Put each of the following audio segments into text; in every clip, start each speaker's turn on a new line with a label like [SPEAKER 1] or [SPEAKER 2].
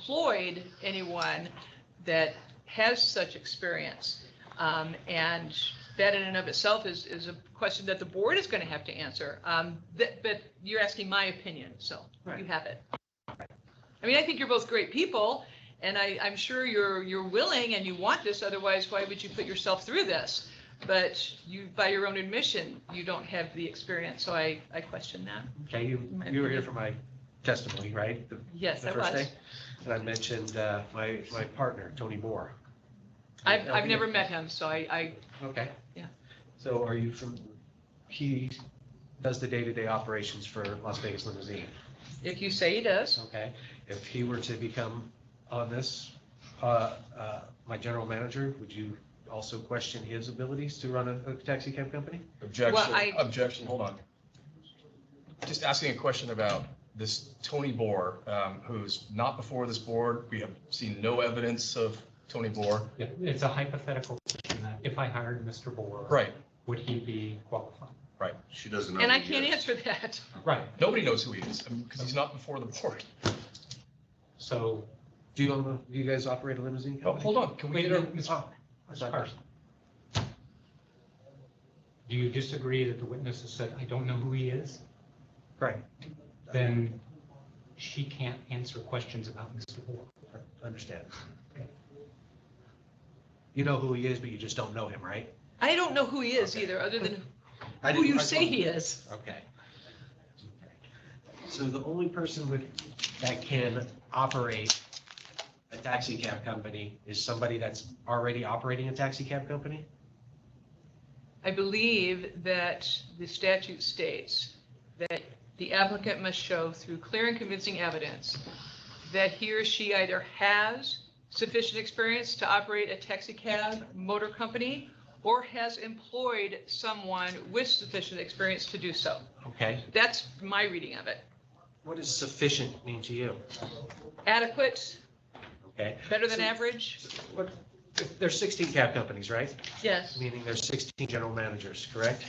[SPEAKER 1] employed anyone that has such experience. Um, and that in and of itself is, is a question that the board is going to have to answer. Um, that, but you're asking my opinion, so you
[SPEAKER 2] Right.
[SPEAKER 1] have it. I mean, I think you're both great people and I, I'm sure you're, you're willing and you want this, otherwise why would you put yourself through this? But you, by your own admission, you don't have the experience, so I, I question that.
[SPEAKER 3] Okay, you, you were here for my testimony, right? The-
[SPEAKER 1] Yes,
[SPEAKER 3] the
[SPEAKER 1] I
[SPEAKER 3] first
[SPEAKER 1] was.
[SPEAKER 3] day? And I mentioned uh, my, my partner, Tony Moore.
[SPEAKER 1] I've, I've never met him, so I, I
[SPEAKER 3] Okay.
[SPEAKER 1] Yeah.
[SPEAKER 3] So are you from, he does the day-to-day operations for Las Vegas Limousine,
[SPEAKER 1] If you say he does,
[SPEAKER 3] okay? If he were to become on this, uh, uh, my general manager, would you also question his abilities to run a a taxi cab company?
[SPEAKER 1] Well, I-
[SPEAKER 4] Objection, objection, hold on. Just asking a question about this Tony Boer, um, who's not before this board. We have seen no evidence of Tony Boer.
[SPEAKER 5] Yeah, it's a hypothetical question that if I hired Mr. Boer.
[SPEAKER 4] Right,
[SPEAKER 5] Would he be qualified?
[SPEAKER 6] She doesn't know.
[SPEAKER 1] and I
[SPEAKER 6] who he
[SPEAKER 1] can't
[SPEAKER 6] is.
[SPEAKER 1] answer that.
[SPEAKER 5] Right,
[SPEAKER 4] nobody knows who he is, because he's not before the board.
[SPEAKER 5] so,
[SPEAKER 3] Do you, own a- do you guys operate a limousine
[SPEAKER 4] Oh,
[SPEAKER 3] company?
[SPEAKER 4] Hold on, can we
[SPEAKER 5] wait,
[SPEAKER 4] get our,
[SPEAKER 5] Mr.
[SPEAKER 3] Oh, I thought-
[SPEAKER 5] Carson. Do you disagree that the witness has said, I don't know who he is?
[SPEAKER 3] Right,
[SPEAKER 5] Then she can't answer questions about Mr. Boer.
[SPEAKER 3] I understand. You know who he is, but you just don't know him, right?
[SPEAKER 1] I don't know who he is
[SPEAKER 3] Okay.
[SPEAKER 1] either, other than
[SPEAKER 3] I
[SPEAKER 1] who
[SPEAKER 3] didn't-
[SPEAKER 1] you
[SPEAKER 3] I
[SPEAKER 1] say
[SPEAKER 3] thought-
[SPEAKER 1] he is.
[SPEAKER 3] Okay. So the only person with, that can operate a taxi cab company is somebody that's already operating a taxi cab company?
[SPEAKER 1] I believe that the statute states that the applicant must show through clear and convincing evidence that he or she either has sufficient experience to operate a taxi cab motor company or has employed someone with sufficient experience to do so.
[SPEAKER 3] Okay.
[SPEAKER 1] That's my reading of it.
[SPEAKER 3] What does sufficient mean to you?
[SPEAKER 1] Adequate,
[SPEAKER 3] Okay.
[SPEAKER 1] better than
[SPEAKER 3] So-
[SPEAKER 1] average?
[SPEAKER 3] What, there's 16 cab companies, right?
[SPEAKER 1] Yes.
[SPEAKER 3] Meaning there's 16 general managers, correct?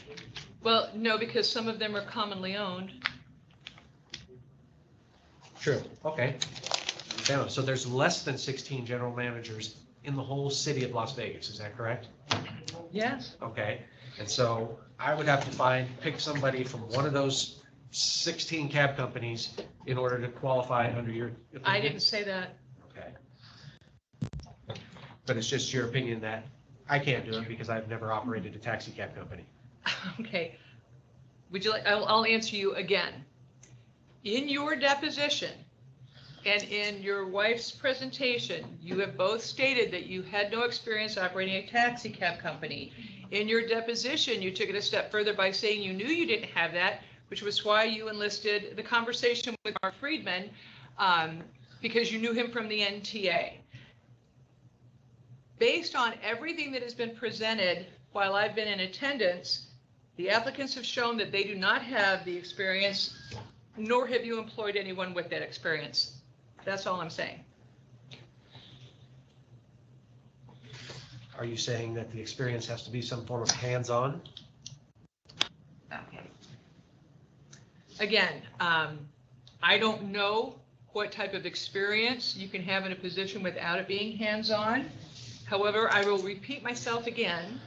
[SPEAKER 1] Well, no, because some of them are commonly owned.
[SPEAKER 3] True. Okay. Down. So there's less than 16 general managers in the whole city of Las Vegas, is that correct?
[SPEAKER 1] Yes.
[SPEAKER 3] Okay, and so I would have to find, pick somebody from one of those sixteen cab companies in order to qualify under your.
[SPEAKER 1] I
[SPEAKER 3] opinion?
[SPEAKER 1] didn't say that.
[SPEAKER 3] Okay. But it's just your opinion that I can't do it because I've never operated a taxi cab company.
[SPEAKER 1] Okay. Would you like, I'll, I'll answer you again. In your deposition and in your wife's presentation, you have both stated that you had no experience operating a taxi cab company. In your deposition, you took it a step further by saying you knew you didn't have that, which was why you enlisted the conversation with Mark Friedman, um, because you knew him from the NTA. Based on everything that has been presented while I've been in attendance, the applicants have shown that they do not have the experience, nor have you employed anyone with that experience. That's all I'm saying.
[SPEAKER 3] Are you saying that the experience has to be some form of hands-on?
[SPEAKER 1] Again, um, I don't know what type of experience you can have in a position without it being hands-on. However, I will repeat myself again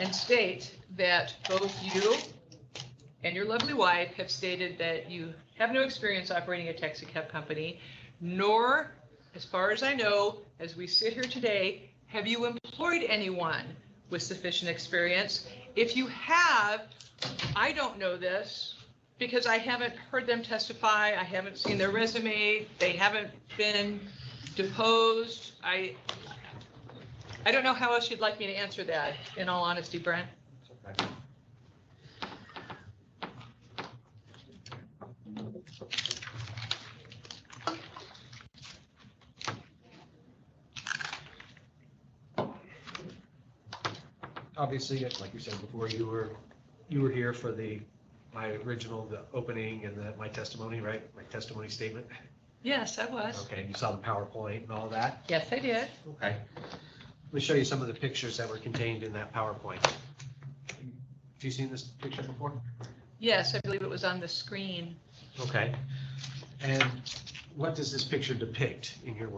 [SPEAKER 1] and state that both you and your lovely wife have stated that you have no experience operating a taxi cab company, nor, as far as I know, as we sit here today, have you employed anyone with sufficient experience. If you have, I don't know this because I haven't heard them testify. I haven't seen their resume. They haven't been deposed. I, I don't know how else you'd like me to answer that, in all honesty, Brent.
[SPEAKER 3] Obviously, like you said before, you were, you were here for the, my original, the opening and the, my testimony, right? My testimony statement.
[SPEAKER 1] Yes, I was.
[SPEAKER 3] Okay, you saw the PowerPoint and all that.
[SPEAKER 1] Yes, I did.
[SPEAKER 3] Okay. Let me show you some of the pictures that were contained in that PowerPoint. Have you seen this picture before?
[SPEAKER 1] Yes, I believe it was on the screen.
[SPEAKER 3] Okay. And what does this picture depict in your